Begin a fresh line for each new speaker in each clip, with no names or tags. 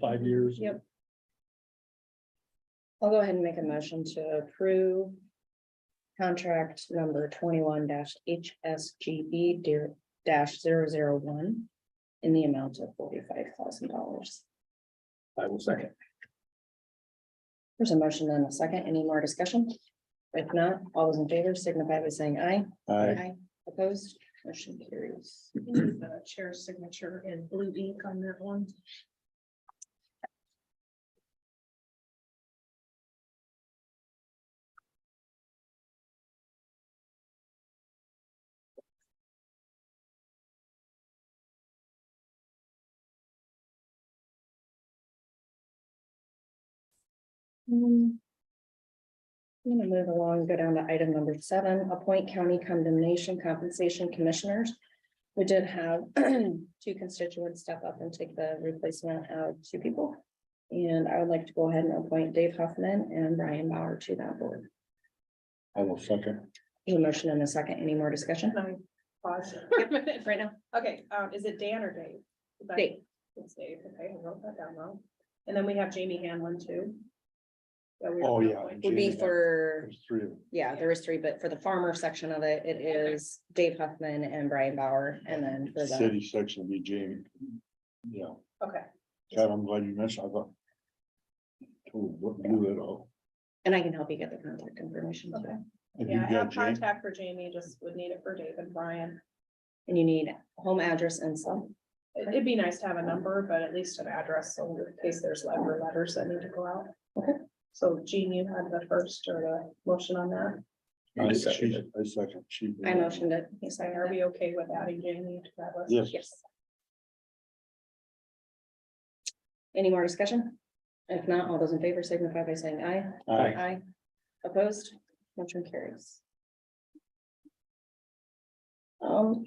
five years.
Yep. I'll go ahead and make a motion to approve contract number twenty-one dash HSGB E dear- dash zero zero one in the amount of forty-five thousand dollars.
I will second.
There's a motion and a second. Any more discussion? If not, all those in favor signify by saying aye.
I,
Opposed, motion carries.
The chair's uh, signature in blue ink on that one.
Hmm. I'm gonna move along, go down to item number seven, appoint county condemnation compensation commissioners. We did have two constituents step up and take the replacement of two people. And I would like to go ahead and appoint Dave Huffman and Brian Bauer to that board.
I will second.
Need a motion in a second. Any more discussion?
Let me pause.
Right now,
Okay, um, is it Dan or Dave? Is that-
Dave.
It's Dave, okay, I wrote that down wrong. And then we have Jamie Hanlon too. That we were
Oh, yeah.
going-
would be
Jamie,
for,
there's Three of them.
yeah, there is three, but for the farmer section of it, it is Dave Huffman and Brian Bauer, and then for the
City section would be Jamie. Yeah,
Okay,
God, I'm glad you mentioned, I thought. Ooh, what blew it all?
And I can help you get the contact information.
okay.
too.
Have
Yeah, I
you got
have
Jamie?
contact for Jamie, just would need it for Dave and Brian.
And you need home address and some.
It- It'd be nice to have a number, but at least an address, so in case there's letter, letters that need to go out.
Okay.
So Jean, you had the first or the motion on that.
I second. I second. She-
I motioned it.
You saying, are we okay with adding Jamie to that list?
Yes.
Yes. Any more discussion? If not, all those in favor signify by saying aye.
I,
Aye. Opposed, motion carries. Um,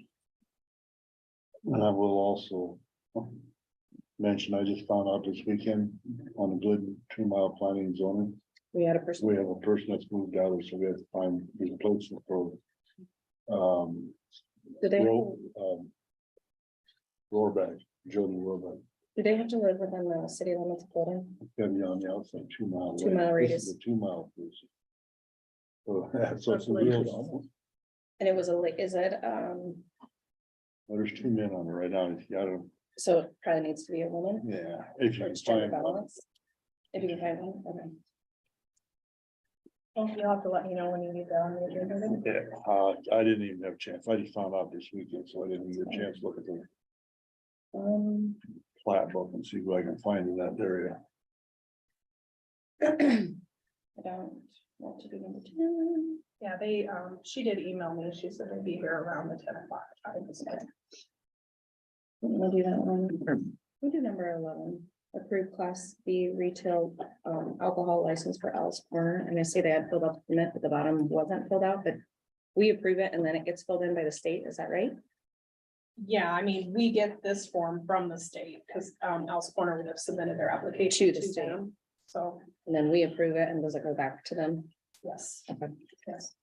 and I will also. Mention, I just found out this weekend on a good two mile planning and zoning.
we had a person,
We have a person that's moved out, so we have to find replacement for. Um,
did they,
Ro- um. Roarback, Jody Roarback,
did they have to live within the city limits of Golden?
gotta be on the outside two mile.
Two mile
away. This is
radius.
a Two mile. person. So that's what's
That's
real.
like-
almost.
And it was a, late. is it, um,
There's two men on it right now, if you gotta,
so it probably needs to be a woman?
yeah, if you
for
can
gender
find one.
balance? If you can find one, okay.
Well, You'll have to let me know when you need that on the agenda. then.
Yeah, uh, I didn't even have a chance, I just found out this weekend, so I didn't get a chance to look at the
Um,
plat book and see what I can find in that area.
I don't want to do number two.
Yeah, they, um, she did email me. She said they'd be here around the ten o'clock. time. so
We'll do that one. We do number eleven, approve class B retail um alcohol license for Al's Corner. And I see they had filled out the permit, but the bottom wasn't filled out, but we approve it and then it gets filled in by the state. Is that right?
Yeah, I mean, we get this form from the state because, um, Al's Corner would have submitted their application.
To the state.
them. So,
And then we approve it and does it go back to them?
yes,
Okay.
yes.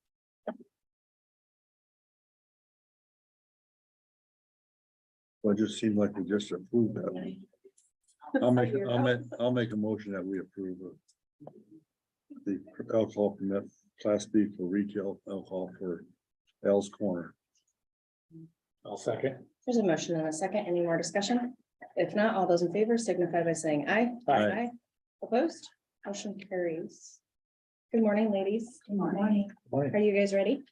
Well, it just seemed like we just approved that. one. I'll make, I'll make, I'll make a motion that we approve of. The alcohol permit, class B for retail alcohol for Al's Corner.
I'll second.
There's a motion and a second. Any more discussion? If not, all those in favor signify by saying aye.
Aye.
Opposed? Motion carries. Good morning, ladies.
Good morning.
Are you guys ready?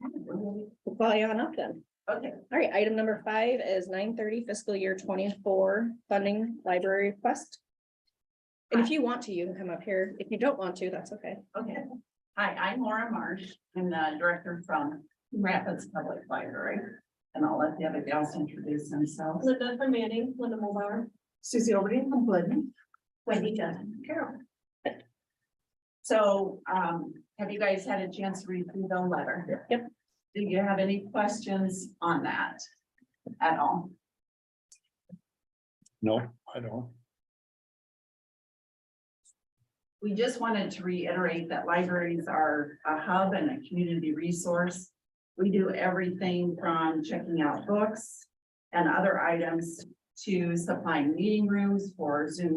We'll Call you on up then.
Okay.
All right, item number five is nine thirty fiscal year twenty-four funding library request. And if you want to, you can come up here. If you don't want to, that's okay.
Okay. Hi, I'm Laura Marsh. I'm the director from Rapids Public Library. And I'll let the other gals introduce themselves.
Linda from Manning, Linda Mulbauer.
Susie Overton from Glidden. Wendy Dunn, Carol. So, um, have you guys had a chance to read through the letter?
Yep.
Do you have any questions on that at all?
No, I don't.
We just wanted to reiterate that libraries are a hub and a community resource. We do everything from checking out books and other items to supplying meeting rooms for Zoom